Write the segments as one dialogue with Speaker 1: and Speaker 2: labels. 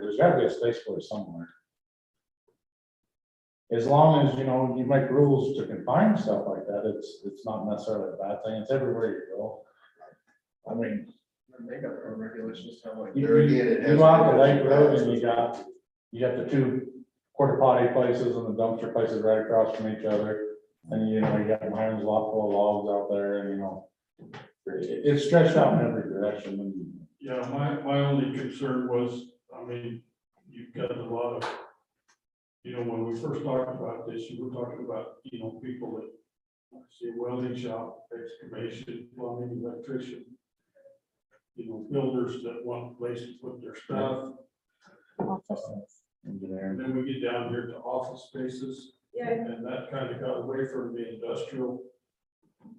Speaker 1: There's gotta be a space for it somewhere. As long as, you know, you make rules to confine stuff like that, it's, it's not necessarily a bad thing, it's everywhere you go. I mean,
Speaker 2: They got their own regulations, kind of like.
Speaker 1: you,
Speaker 2: they're
Speaker 1: you
Speaker 2: again, it has-
Speaker 1: you go out to Lake Road and you got, you got the two quarter potty places and the dumpster places right across from each other. And you know, you got Myron's lot full of logs out there and, you know, it, it's stretched out in every direction and
Speaker 3: Yeah, my, my only concern was, I mean, you've got a lot of, you know, when we first talked about this, you were talking about, you know, people that see welding shop, excavation, plumbing, electrician, you know, builders that want places to put their stuff,
Speaker 1: engineering.
Speaker 3: and then we get down here to office spaces,
Speaker 4: Yeah,
Speaker 3: and that kind of got away from the industrial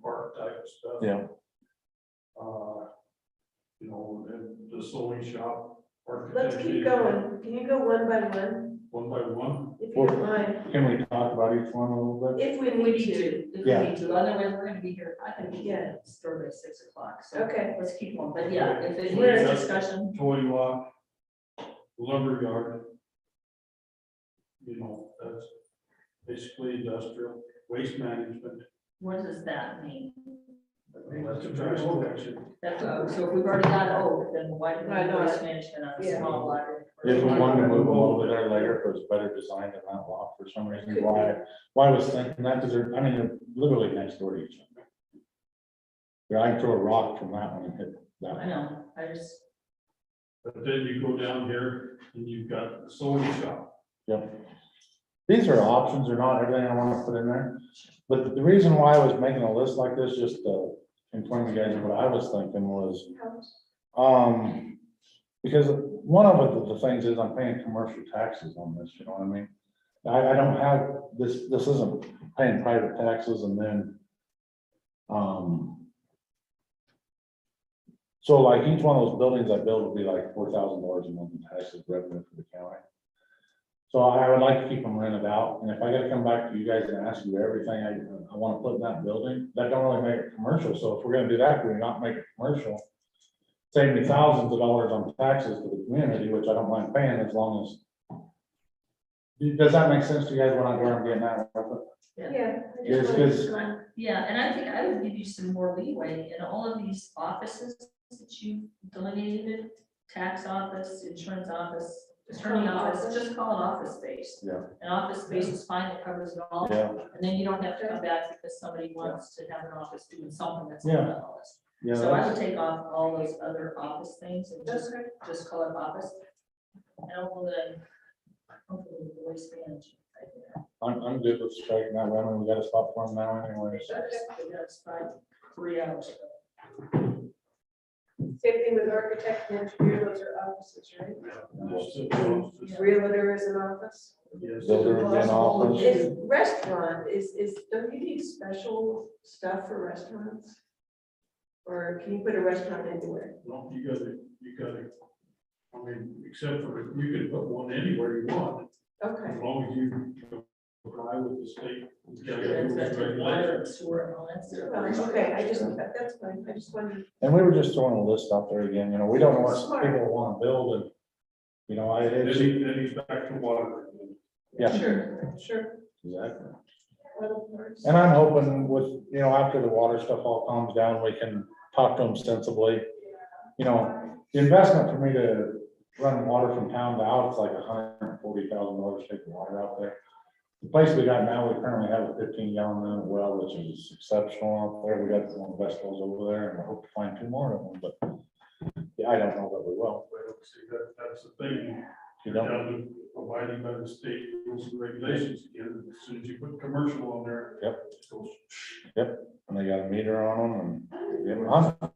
Speaker 3: park type of stuff.
Speaker 1: Yeah.
Speaker 3: Uh, You know, and the sewing shop.
Speaker 4: let's
Speaker 3: architecture,
Speaker 4: keep going. Can you go one by one,
Speaker 3: One by one,
Speaker 4: if you don't mind,
Speaker 1: Can we talk about each one a little bit?
Speaker 4: if we
Speaker 5: We need
Speaker 4: need to?
Speaker 5: to, if
Speaker 1: Yeah.
Speaker 5: we need to, otherwise we're gonna be here, I think, yeah,
Speaker 4: Yeah.
Speaker 5: it's thirty, six o'clock, so.
Speaker 4: Okay.
Speaker 5: Let's keep on, but yeah, if it
Speaker 4: Where-
Speaker 5: needs discussion,
Speaker 3: toy lot, lumber yard. You know, that's basically industrial, waste management,
Speaker 5: what does that mean?
Speaker 3: that's a trash collection.
Speaker 5: That's, uh, so if we've already got O, then why do we
Speaker 4: Right,
Speaker 5: need
Speaker 4: no,
Speaker 5: waste management on a
Speaker 4: yeah.
Speaker 5: small library?
Speaker 1: If we wanted to move a little bit there later, if it was better designed than that lot for some reason, why, why I was thinking that, because they're, I mean, they're literally next door to each other. Yeah, I can throw a rock from that one and hit that
Speaker 5: I
Speaker 1: one.
Speaker 5: know, I just,
Speaker 3: But then you go down here and you've got the sewing shop,
Speaker 1: These are options, they're not everything I want to put in there, but the reason why I was making a list like this, just to inform you guys of what I was thinking was, Um, because one of the- the things is I'm paying commercial taxes on this, you know what I mean? I, I don't have, this, this isn't paying private taxes and then, um, so like each one of those buildings I build would be like four thousand dollars a month in taxes revenue for the county. So I would like to keep them rented out, and if I gotta come back to you guys and ask you everything I, I wanna put in that building, that don't really make it commercial, so if we're gonna do that, we're not make it commercial save me thousands of dollars on taxes to the community, which I don't mind paying as long as. Does that make sense to you guys when I go and get that?
Speaker 4: Yeah. I
Speaker 1: Yes,
Speaker 4: just wanted
Speaker 1: because-
Speaker 4: to go on.
Speaker 5: yeah, and I think I would give you some more leeway in all of these offices that you delineated, tax office, insurance office, attorney office, just call it office space.
Speaker 1: Yeah.
Speaker 5: An office space is fine, it covers it all.
Speaker 1: Yeah,
Speaker 5: And then you don't have to come back because somebody wants to have an office doing something that's not
Speaker 1: Yeah.
Speaker 5: on the list.
Speaker 1: yeah,
Speaker 5: So I
Speaker 1: that's-
Speaker 5: would take off all those other office things and just,
Speaker 4: Okay.
Speaker 5: just call it office. And hopefully, hopefully the waste management. right there.
Speaker 1: I'm, I'm good with striking that one, and we got a spot for them now anyways.
Speaker 5: That's- That's about three hours.
Speaker 4: Same thing with architect and engineer, those are offices, right?
Speaker 3: that's the most-
Speaker 5: Yeah.
Speaker 4: Realtor is an office.
Speaker 3: yes.
Speaker 1: Builder would be an office,
Speaker 4: Is restaurant, is, is, don't you need special stuff for restaurants? Or can you put a restaurant anywhere?
Speaker 3: Well, you gotta, you gotta, I mean, except for, you can put one anywhere you want,
Speaker 4: Okay,
Speaker 3: as long as you comply with the state.
Speaker 5: That's that's
Speaker 3: regulations.
Speaker 5: water and sewer and all that
Speaker 4: Well,
Speaker 5: stuff.
Speaker 4: okay, I just, that- that's fine, I just wanted,
Speaker 1: and we were just throwing a list out there again, you know, we don't know what people wanna build and. You know, I,
Speaker 3: Then
Speaker 1: it's,
Speaker 3: he, then he's back to water.
Speaker 1: yeah,
Speaker 4: sure, sure.
Speaker 1: exactly.
Speaker 4: Well, of course.
Speaker 1: And I'm hoping with, you know, after the water stuff all calms down, we can talk to them sensibly. You know, the investment for me to run water from town to out, it's like a hundred and forty thousand dollars to take the water out there. The place we got now, we currently have a fifteen gallon minute well, which is exceptional out there. We got one of the best wells over there and I hope to find two more of them, but yeah, I don't know that we will.
Speaker 3: Well, see, that, that's the thing,
Speaker 1: You
Speaker 3: you're
Speaker 1: know,
Speaker 3: down to abiding by the state rules and regulations again, as soon as you put commercial on there.
Speaker 1: Yep.
Speaker 3: it goes,
Speaker 1: and they got a meter on them and, yeah, I'm-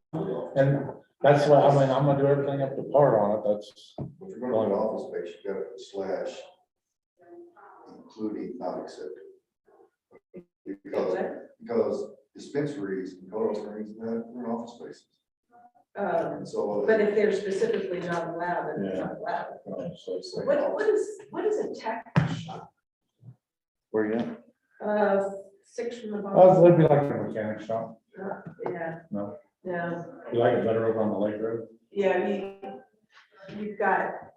Speaker 1: and that's why, I mean, I'm gonna do everything up to par on it. That's,
Speaker 2: If you're going to an office space, you gotta slash including not accepted. Because, because dispensaries and cold springs, they're they're office spaces.
Speaker 4: Um,
Speaker 2: And so. uh,
Speaker 4: But if they're specifically not allowed, then it's
Speaker 1: Yeah.
Speaker 4: not allowed.
Speaker 1: you know, so it's like.
Speaker 4: What, what is, what is a tack shop?
Speaker 1: Where you at?
Speaker 4: Uh, six from the
Speaker 1: Oh,
Speaker 4: bottom?
Speaker 1: it'd be like a mechanic shop.
Speaker 4: Yeah.
Speaker 1: No.
Speaker 4: No,
Speaker 1: You like it better over on the lake road?
Speaker 4: yeah, you, you've got